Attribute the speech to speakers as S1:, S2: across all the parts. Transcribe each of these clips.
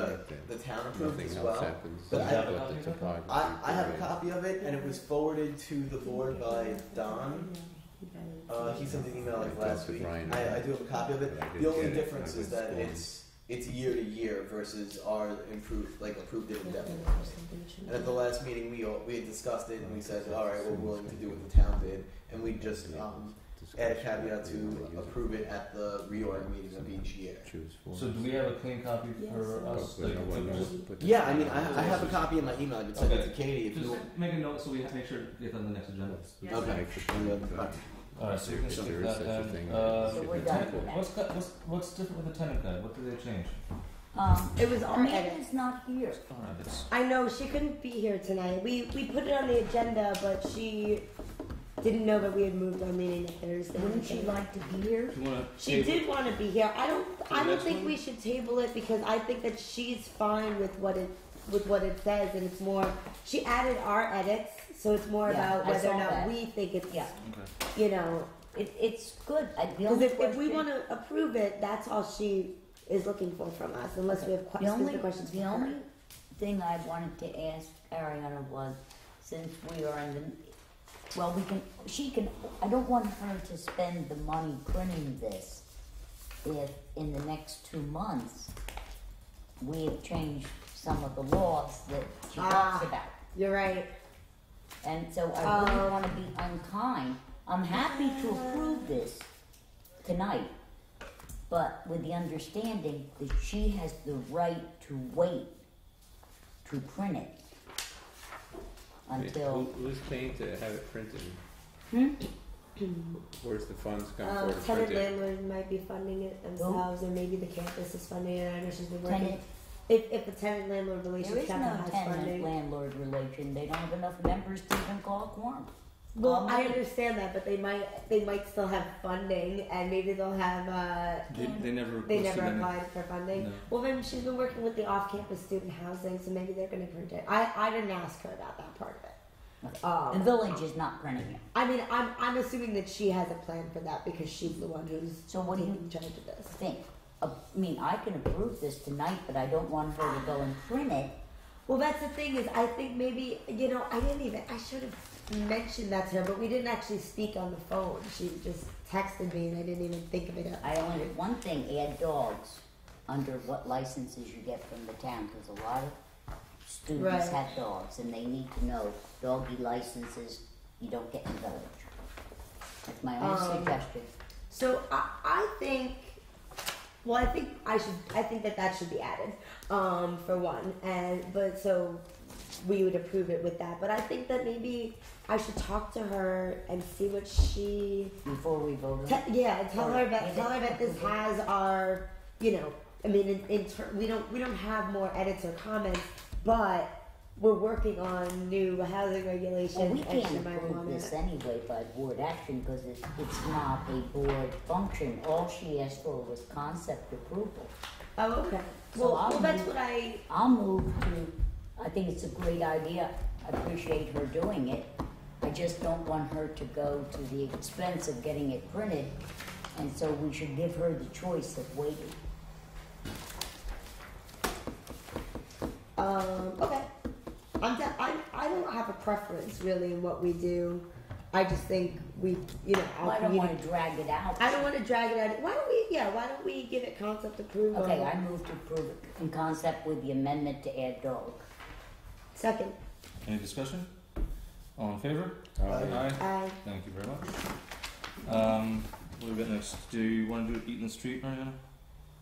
S1: the, the town approved
S2: Nothing
S1: as
S2: else
S1: well.
S2: happens.
S1: But I have
S3: a
S2: But
S3: copy
S2: the
S3: of it?
S2: topography.
S1: I, I have a
S2: period.
S1: copy of it, and it was forwarded to the board by Don. Uh, he sent an email like
S2: I
S1: last
S2: talked to
S1: week.
S2: Brian
S1: I, I
S2: about
S1: do have a copy of it.
S2: but I
S1: The
S2: didn't
S1: only
S2: get it.
S1: difference is
S2: I was
S1: that
S2: gone.
S1: it's it's year to year versus our improved like approved it indefinitely. And at the last meeting, we all, we had discussed it, and we said, all right, we're willing to do what the town did, and we just um, add a caveat to approve it at the reorg meeting of each year.
S2: Choose for.
S3: So do we have a clean copy for us?
S2: But
S3: like,
S2: no one knows
S3: just,
S2: what this
S1: Yeah, I mean,
S2: is.
S1: I, I have a copy in my email. I could send it to
S3: Okay.
S1: Kennedy if you want.
S3: just make a note so we have to make sure it gets on the next agenda.
S1: Okay.
S2: Actually, uh,
S3: All right, so we can
S2: If
S3: stick
S2: there
S3: with
S2: is such
S3: that.
S2: a
S3: then.
S2: thing,
S3: Uh,
S2: it should
S4: we're
S2: be
S4: done.
S2: equal.
S3: what's, got- what's what's different with the tenant guide? What did they change?
S4: Um, it was our edit.
S5: Amanda's not here.
S3: All right, it's,
S5: I know she couldn't be here tonight. We we put it on the agenda, but she didn't know that we had moved our meeting to Thursday.
S4: Wouldn't she like to be here?
S3: if you want to,
S5: She did want to be here. I don't.
S3: the
S5: I don't
S3: next
S5: think
S3: one?
S5: we should table it because I think that she's fine with what it with what it says, and it's more. She added our edits, so it's more
S4: Yeah,
S5: about
S4: I
S5: whether or
S4: saw
S5: not
S4: that.
S5: we think it's.
S4: Yeah.
S5: You know,
S4: It, it's good. I, the
S5: because
S4: only
S5: if, if we
S4: question-
S5: want to approve it, that's all she is looking for from us, unless we have
S4: The
S5: questions.
S4: only,
S5: questions
S4: the
S5: for her.
S4: only thing I wanted to ask Ariana was, since we are in the, well, we can, she can, I don't want her to spend the money printing this if in the next two months we have changed some of the laws that she
S5: Ah.
S4: talks about.
S5: You're right.
S4: And so I wouldn't
S5: Um,
S4: wanna be unkind. I'm happy to approve this tonight, but with the understanding that she has the right to wait to print it
S2: Who,
S4: until,
S2: who's paying to have it printed?
S5: Hmm?
S2: Where's the funds come
S5: Um,
S2: for to
S5: tenant
S2: print it?
S5: landlord might be funding it themselves, or maybe the campus is funding it. I know she's been working.
S4: Tenant-
S5: If, if the tenant landlord
S4: there
S5: relationship
S4: is
S5: capital
S4: no
S5: has
S4: tenant
S5: funding.
S4: landlord relation, they don't have enough members to even call a quorum.
S5: Well,
S4: Um,
S5: I understand that, but they might, they might still have funding, and maybe they'll have, uh,
S3: they, they never
S5: they
S3: listed
S5: never
S3: any-
S5: applied for funding.
S3: No.
S5: Well, then she's been working with the off-campus student housing, so maybe they're gonna print it. I, I didn't ask her about that part of it.
S4: The
S5: Um,
S4: village is not printing it,
S5: I mean, I'm, I'm assuming that she has a plan for that, because she's the one who's
S4: so what do you
S5: taking charge of this.
S4: think? Uh, I mean, I can approve this tonight, but I don't want her to go and print it
S5: Well, that's the thing is, I think maybe you know, I didn't even I should have mentioned that to her, but we didn't actually speak on the phone. She just texted me, and I didn't even think of it.
S4: I only did one thing, add dogs under what licenses you get from the town, because a lot of students
S5: Right.
S4: have dogs, and they need to know doggy licenses you don't get in the village. That's my only
S5: Um,
S4: suggestion.
S5: So I, I think, well, I think I should, I think that that should be added, um, for one, and but so we would approve it with that. But I think that maybe I should talk to her and see what she.
S4: Before we vote
S5: Te-
S4: on
S5: yeah, tell her
S4: Alright.
S5: that. Tell her that this has our, you know, I mean, in, in ter- we don't we don't have more edits or comments, but we're working on new housing regulations.
S4: well, we
S5: and she
S4: can't
S5: might
S4: approve
S5: wanna-
S4: this anyway by board action, because it, it's not a board function, all she asked for was concept approval.
S5: Oh, okay.
S4: So
S5: Well,
S4: I'll
S5: well, that's
S4: move-
S5: what I.
S4: I'll move to, I think it's a great idea, I appreciate her doing it. I just don't want her to go to the expense of getting it printed, and so we should give her the choice of waiting.
S5: Um, okay. I'm, de- I'm I don't have a preference really in what we do. I just think we, you know,
S4: Well,
S5: our
S4: I don't wanna
S5: community-
S4: drag it out.
S5: I don't want to drag it out. Why don't we? Yeah. Why don't we give it concept approval?
S4: Okay, I move to approve it in concept with the amendment to add dog.
S5: Second.
S3: Any discussion? All in favor? Aye.
S5: I.
S3: Thank you very much. Um, what do we got next? Do you want to do it eat in the street, Mariana?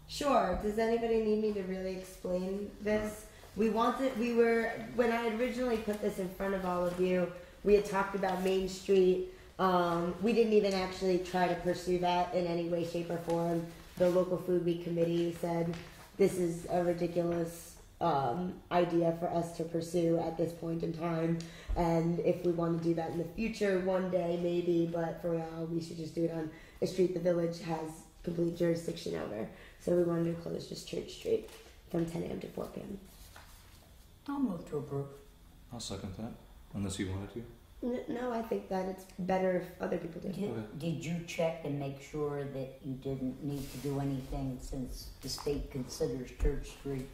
S5: Sure. Does anybody need me to really explain this? We wanted, we were, when I originally put this in front of all of you, we had talked about Main Street. Um, we didn't even actually try to pursue that in any way, shape, or form. The local food week committee said this is a ridiculous um, idea for us to pursue at this point in time. And if we want to do that in the future, one day maybe, but for now, we should just do it on a street the village has complete jurisdiction over. So we wanted to close just Church Street from 10 a.m. to 4 p.m.
S4: I'll move to approve.
S3: I'll second that. Unless you wanted to.
S5: N- No, I think that it's better if other people do.
S4: Did, did you check and make sure that you didn't need to do anything since the state considers Church Street